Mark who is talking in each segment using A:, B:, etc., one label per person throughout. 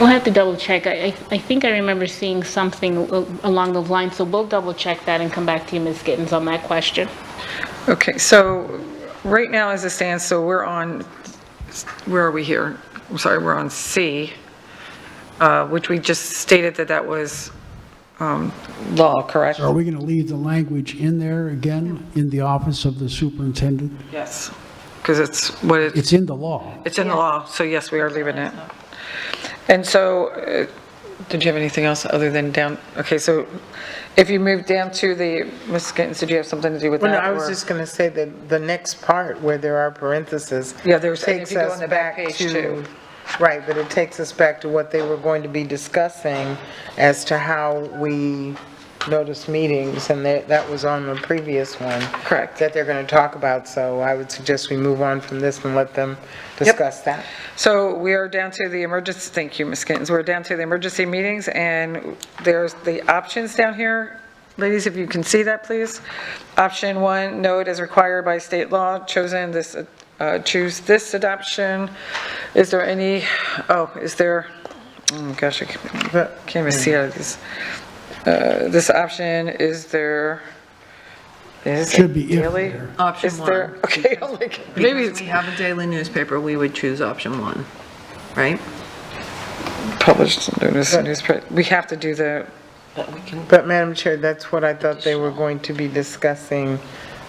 A: We'll have to double check. I, I- I think I remember seeing something al- along those lines, so we'll double check that and come back to you, Ms. Gittens, on that question.
B: Okay, so right now as it stands, so we're on, where are we here? I'm sorry, we're on C, uh, which we just stated that that was um, law, correct?
C: Are we going to leave the language in there again, in the office of the superintendent?
B: Yes. Because it's what it
C: It's in the law.
B: It's in the law, so yes, we are leaving it. And so, uh, did you have anything else other than down, okay, so if you move down to the, Ms. Gittens, did you have something to do with that?
D: Well, no, I was
B: or-
D: just going to say that the next part where there are parentheses.
B: Yeah, there's- and if
D: takes
B: you go
D: us
B: on the back page,
D: to-
B: too.
D: Right, but it takes us back to what they were going to be discussing as to how we notice meetings, and that, that was on the previous one.
B: Correct.
D: That they're going to talk about, so I would suggest we move on from this and let them discuss that.
B: So we are down to the emergency, thank you, Ms. Gittens, we're down to the emergency meetings, and there's the options down here. Ladies, if you can see that, please. Option one, no, it is required by state law, chosen this, uh, choose this adoption. Is there any, oh, is there, oh gosh, I can't can't even see out of these. Uh, This option, is there, is
C: Should
B: it
C: be if
B: daily?
C: there.
E: Option
B: Is there-
E: one.
B: Okay, oh I'm like, maybe,
E: Because
B: it's
E: we have a daily newspaper, we would choose option one, right?
B: published notice, in newsprint. we have to do the
D: But Madam Chair, that's what I thought they were going to be discussing,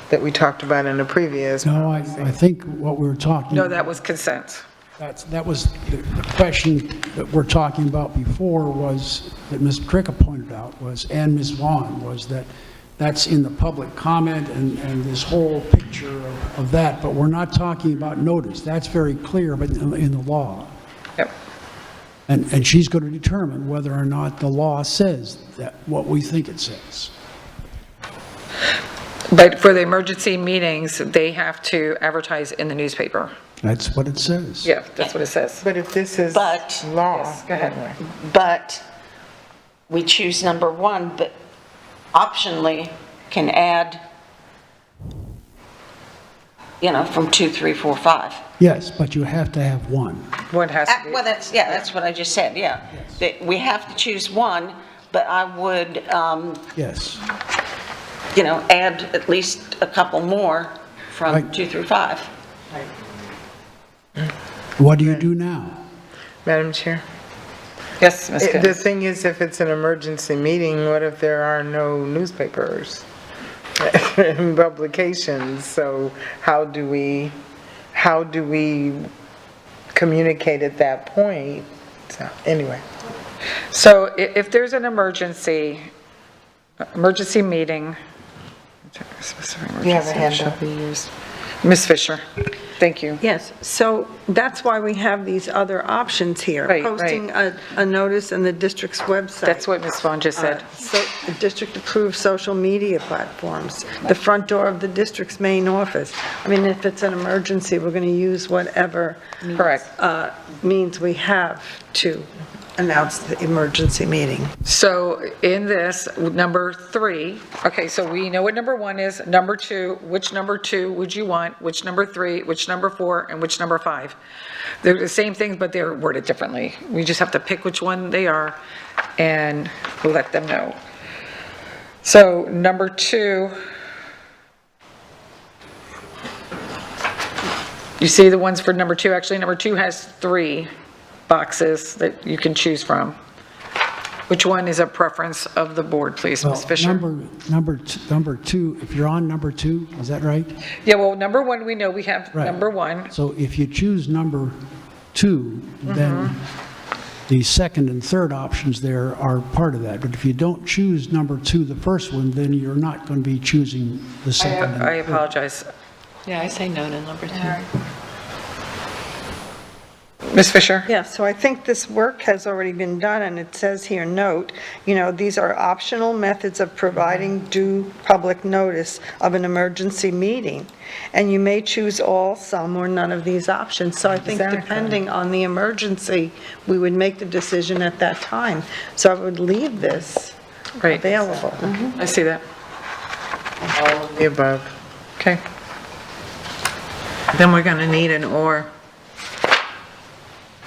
D: that we talked about in the previous.
C: No, I, I think what we were talking.
B: No, that was consent.
C: That's, that was, the the question that we're talking about before was, that Ms. Tricka pointed out was, and Ms. Vaughn, was that that's in the public comment and, and this whole picture of- of that, but we're not talking about notice. That's very clear, but in in the law.
B: Yep.
C: And, and she's going to determine whether or not the law says that, what we think it says.
B: But for the emergency meetings, they have to advertise in the newspaper.
C: That's what it says.
B: Yeah, that's what it says.
D: But if this is
F: But-
D: law.
B: Go ahead.
F: But we choose number one, but optionally can add, you know, from two, three, four, five.
C: Yes, but you have to have one.
B: One has
F: Uh,
B: to
F: Well,
B: be.
F: that's, yeah, that's what I just said, yeah. That we have to choose one, but I would, um,
C: Yes.
F: you know, add at least a couple more from
C: Right.
F: two through five.
C: What do you do now?
D: Madam Chair?
B: Yes, Ms.
D: It- The
B: Gittens.
D: thing is, if it's an emergency meeting, what if there are no newspapers and publications? So how do we, how do we communicate at that point? So, anyway.
B: So i- if there's an emergency, emergency meeting.
D: You have a hand
B: Shall
D: up.
B: be used. Ms. Fisher, thank you.
G: Yes, so that's why we have these other options here.
B: Right, right.
G: Posting a, a notice in the district's website. Uh,
B: That's what Ms. Vaughn just said.
G: So, the district-approved social media platforms, the front door of the district's main office. I mean, if it's an emergency, we're going to use whatever.
B: Correct.
G: uh, Means we have to announce the emergency meeting.
B: So in this, number three, okay, so we know what number one is, number two, which number two would you want, which number three, which number four, and which number five? They're the same things, but they're worded differently. We just have to pick which one they are and let them know. So number two, you see the ones for number two, actually, number two has three boxes that you can choose from. Which one is a preference of the board, please, Ms.
C: Well,
B: Fisher?
C: Number, number, t- number two, if you're on number two, is that right?
B: Yeah, well, number one, we know we have
C: Right.
B: number one.
C: So if you choose number two, then
B: Mm-hmm.
C: the second and third options there are part of that. But if you don't choose number two, the first one, then you're not going to be choosing the second. and-
B: I apologize.
E: Yeah, I say no to number two.
B: Ms. Fisher?
G: Yeah, so I think this work has already been done, and it says here, note, you know, these are optional methods of providing due public notice of an emergency meeting, and you may choose all, some, or none of these options. So I think
B: Exactly.
G: depending on the emergency, we would make the decision at that time. So I would leave this
B: Right,
G: available.
B: I see that.
D: All of the above.
B: Okay.
E: Then we're going to need an or.